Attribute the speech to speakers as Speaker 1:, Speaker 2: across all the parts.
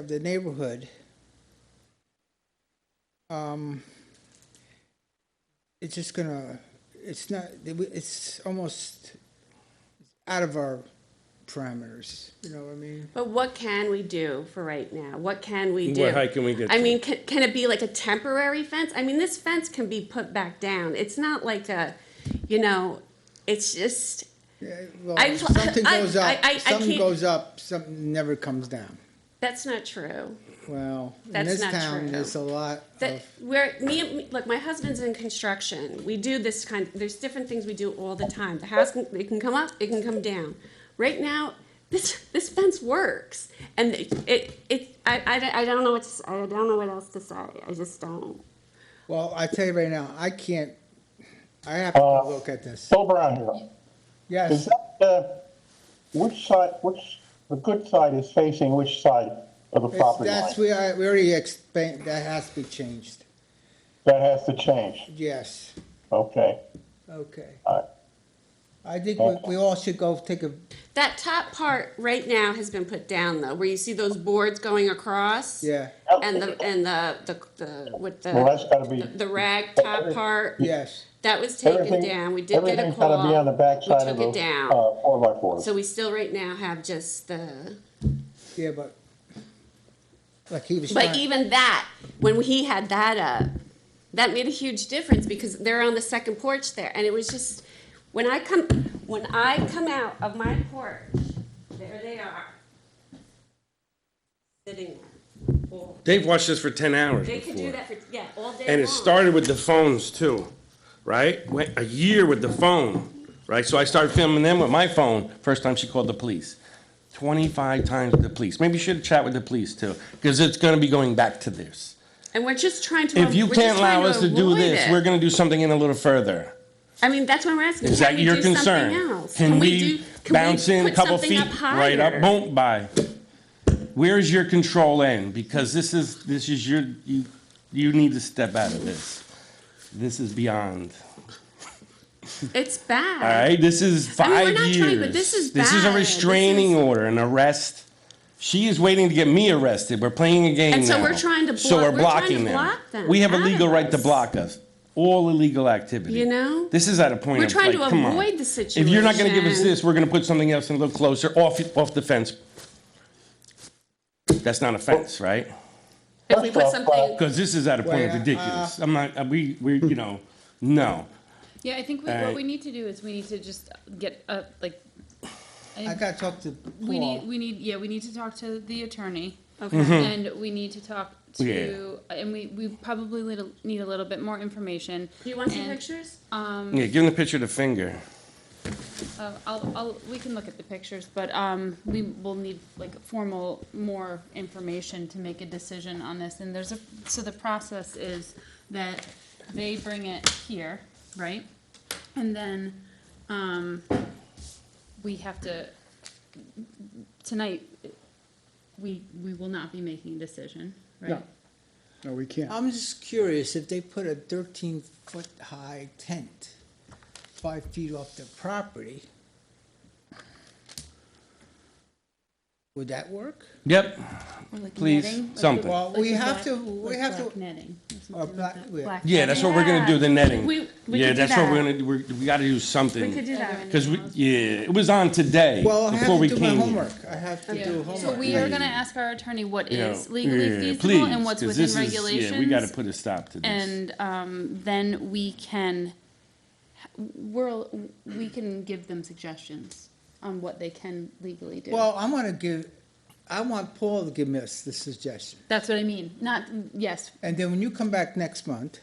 Speaker 1: of the neighborhood. Um, It's just gonna, it's not, it's almost out of our parameters, you know what I mean?
Speaker 2: But what can we do for right now? What can we
Speaker 3: What
Speaker 2: do?
Speaker 3: height can we get
Speaker 2: I
Speaker 3: to?
Speaker 2: mean, can, can it be like a temporary fence? I mean, this fence can be put back down. It's not like a, you know, it's just,
Speaker 1: Yeah, Well,
Speaker 2: I-
Speaker 1: something
Speaker 2: I-
Speaker 1: goes
Speaker 2: I- I- I
Speaker 1: up, something
Speaker 2: can't-
Speaker 1: goes up, something never comes down.
Speaker 2: that's not true.
Speaker 1: Well, in
Speaker 2: That's
Speaker 1: this
Speaker 2: not
Speaker 1: town,
Speaker 2: true.
Speaker 1: there's a lot
Speaker 2: That
Speaker 1: of,
Speaker 3: Oh.
Speaker 2: where me, and- me- look, my husband's in construction. We do this kind. There's different things we do all the time. The house can, it can come up, it can come down. Right now, this this fence works, and it it, it I, I, I don't know what to, s- I don't know what else to say. I just don't.
Speaker 1: well, I tell you right now, I can't, I have to go look at this.
Speaker 4: Bill Brown here. Is
Speaker 1: Yes,
Speaker 4: Uh, that, uh, which side, which, the good side is facing which side of the
Speaker 1: it's-
Speaker 4: property
Speaker 1: that's,
Speaker 4: line?
Speaker 1: we, I, we already explained, that has to be changed.
Speaker 4: That has to change.
Speaker 1: Yes,
Speaker 4: Okay.
Speaker 1: okay.
Speaker 4: All right.
Speaker 1: I think we, we all should go take a,
Speaker 2: That top part right now has been put down though, where you see those boards going across.
Speaker 1: yeah,
Speaker 2: And the and the the, the with the
Speaker 4: Oh. Well, that's gotta be-
Speaker 2: the rag top part.
Speaker 1: yes.
Speaker 2: That was taken
Speaker 4: Everything-
Speaker 2: down. We did get a
Speaker 4: Everything's
Speaker 2: call.
Speaker 4: gotta be on the back side of
Speaker 2: We
Speaker 4: the,
Speaker 2: took it down.
Speaker 4: uh, four by four.
Speaker 2: So we still right now have just the,
Speaker 1: Yeah, but, like he was
Speaker 2: but
Speaker 1: trying,
Speaker 2: even that, when he had that up, that made a huge difference because they're on the second porch there. And it was just, when I come, when I come out of my porch, there they are. Sitting there. all-
Speaker 3: They've watched this for ten hours
Speaker 2: They could do
Speaker 3: before.
Speaker 2: that for, yeah, all day long.
Speaker 3: And it started with the phones too, right? Went a year with the phone, right? So I started filming them with my phone. First time she called the police. Twenty-five times with the police. Maybe you should chat with the police too, because it's gonna be going back to this.
Speaker 2: And we're just trying to.
Speaker 3: If you
Speaker 2: we're just
Speaker 3: can't allow
Speaker 2: trying
Speaker 3: us to do
Speaker 2: avoid
Speaker 3: this,
Speaker 2: it.
Speaker 3: we're gonna do something in a little further.
Speaker 2: I mean, that's what we're asking.
Speaker 3: Is
Speaker 2: Can
Speaker 3: that
Speaker 2: we
Speaker 3: your
Speaker 2: do
Speaker 3: concern?
Speaker 2: something else?
Speaker 3: Can
Speaker 2: do-
Speaker 3: we
Speaker 2: can we
Speaker 3: bounce in a
Speaker 2: put
Speaker 3: couple
Speaker 2: something
Speaker 3: feet, right
Speaker 2: higher?
Speaker 3: up, boom, bye? Where's your control end? Because this is, this is your, you, you need to step out of this. This is beyond,
Speaker 2: It's bad.
Speaker 3: all right? This is
Speaker 2: I mean, we're
Speaker 3: five
Speaker 2: not
Speaker 3: years.
Speaker 2: trying, but this is
Speaker 3: This is a
Speaker 2: bad. This
Speaker 3: restraining
Speaker 2: is-
Speaker 3: order, an arrest. She is waiting to get me arrested. We're playing a game
Speaker 2: And so
Speaker 3: now.
Speaker 2: we're trying to
Speaker 3: So
Speaker 2: blo-
Speaker 3: we're
Speaker 2: we're trying to
Speaker 3: blocking them.
Speaker 2: block them
Speaker 3: We have a
Speaker 2: out of
Speaker 3: legal right to
Speaker 2: this.
Speaker 3: block us. All illegal activity.
Speaker 2: You know?
Speaker 3: This is at a point
Speaker 2: We're
Speaker 3: of
Speaker 2: trying
Speaker 3: like,
Speaker 2: to
Speaker 3: come on.
Speaker 2: avoid the
Speaker 3: If you're not going to give us
Speaker 2: situation.
Speaker 3: this, we're going to put something else in a little closer, off off the fence. That's not a fence, right?
Speaker 2: If we put
Speaker 4: Well,
Speaker 2: something,
Speaker 3: Because this is at a point of
Speaker 1: Well,
Speaker 3: ridiculous. I'm not. uh, We we you know no.
Speaker 5: Yeah, I think we,
Speaker 3: Uh,
Speaker 5: what we need to do is we need to just get uh like.
Speaker 1: I gotta talk to
Speaker 5: We need,
Speaker 1: Paul.
Speaker 5: we need, yeah, we need to talk to the attorney,
Speaker 2: okay,
Speaker 5: and we need to talk to, and we, we probably need a- need a little bit more information.
Speaker 2: do you want some
Speaker 5: and,
Speaker 2: pictures?
Speaker 5: Um,
Speaker 3: Yeah, give him the picture of the finger.
Speaker 5: uh, I'll, I'll, we can look at the pictures, but, um, we will need like formal, more information to make a decision on this, and there's a, so the process is that they bring it here, right? And then, um, we have to, tonight, we, we will not be making a decision, right?
Speaker 6: No, we can't.
Speaker 1: I'm just curious, if they put a thirteen foot high tent, five feet off the property, would that work?
Speaker 3: Yep.
Speaker 5: Or like
Speaker 3: Please,
Speaker 5: netting, like
Speaker 3: something.
Speaker 5: the-
Speaker 1: Well,
Speaker 5: like
Speaker 1: we
Speaker 5: the
Speaker 1: have
Speaker 5: black-
Speaker 1: to- we
Speaker 5: like
Speaker 1: have to-
Speaker 5: black Netting. or something like
Speaker 1: black-
Speaker 5: that.
Speaker 1: yeah.
Speaker 5: Black
Speaker 3: Yeah, that's what we're going to do. The netting.
Speaker 2: We- we
Speaker 3: yeah,
Speaker 2: could do
Speaker 3: that's what we're
Speaker 2: that.
Speaker 3: going to. We're, we got to do
Speaker 2: We could
Speaker 3: something.
Speaker 2: do that.
Speaker 3: Because we yeah, it was on today
Speaker 1: Well, I
Speaker 3: before
Speaker 1: have to
Speaker 3: we
Speaker 1: do my
Speaker 3: came. here.
Speaker 1: homework, I have to do homework.
Speaker 5: So we are gonna ask our attorney what
Speaker 3: You
Speaker 5: is
Speaker 3: know,
Speaker 5: legally
Speaker 3: yeah,
Speaker 5: feasible
Speaker 3: please,
Speaker 5: and what's
Speaker 3: 'cause
Speaker 5: within
Speaker 3: this is-
Speaker 5: regulations.
Speaker 3: Yeah, we got to put a stop to this.
Speaker 5: And, um, then we can, we're, we can give them suggestions on what they can legally do.
Speaker 1: Well, I'm gonna give, I want Paul to give us the suggestion.
Speaker 5: That's what I mean, not, yes,
Speaker 1: And then when you come back next month,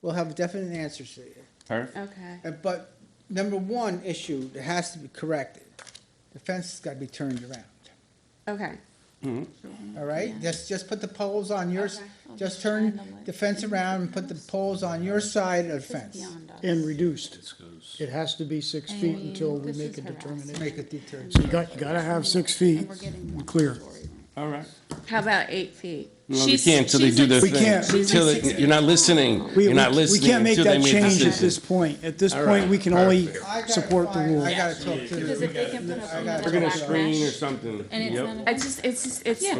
Speaker 1: we'll have definite answers to you.
Speaker 3: Perfect.
Speaker 2: Okay.
Speaker 1: Uh, But number one issue that has to be corrected, the fence has got to be turned around,
Speaker 2: Okay.
Speaker 1: all right? Just, just put the poles on yours,
Speaker 2: Okay.
Speaker 1: just turn the fence around and put the poles on your side of the fence.
Speaker 5: beyond us.
Speaker 6: And reduced. It has to be six feet until we
Speaker 5: this
Speaker 6: make
Speaker 5: is
Speaker 6: a
Speaker 5: harassing.
Speaker 6: determination.
Speaker 1: Make a detour.
Speaker 6: So you got, you gotta have six feet
Speaker 5: We're getting one
Speaker 6: clear.
Speaker 5: story.
Speaker 3: All right.
Speaker 2: How about eight feet?
Speaker 3: No, we
Speaker 2: She's-
Speaker 3: can't till they
Speaker 2: she's
Speaker 3: do
Speaker 2: like-
Speaker 3: their
Speaker 6: We
Speaker 3: thing.
Speaker 6: can't.
Speaker 2: She's
Speaker 3: Till
Speaker 2: like
Speaker 3: they-
Speaker 2: six
Speaker 3: you're not
Speaker 2: feet.
Speaker 3: listening.
Speaker 6: We,
Speaker 3: you're
Speaker 6: we-
Speaker 3: not
Speaker 6: we
Speaker 3: listening.
Speaker 6: can't make
Speaker 3: until
Speaker 6: that
Speaker 3: they a
Speaker 6: change at
Speaker 3: decision.
Speaker 6: this point. At this
Speaker 3: All
Speaker 6: point,
Speaker 3: right,
Speaker 6: we can only
Speaker 1: I gotta
Speaker 6: support the
Speaker 1: find-
Speaker 6: rule.
Speaker 1: I gotta talk to.
Speaker 5: Because if they can put up
Speaker 1: I gotta
Speaker 5: another
Speaker 3: We're gonna
Speaker 5: black mesh,
Speaker 3: screen or something.
Speaker 5: And it's
Speaker 3: Yep.
Speaker 5: not a-
Speaker 2: It's just, it's, it's.
Speaker 5: Yeah.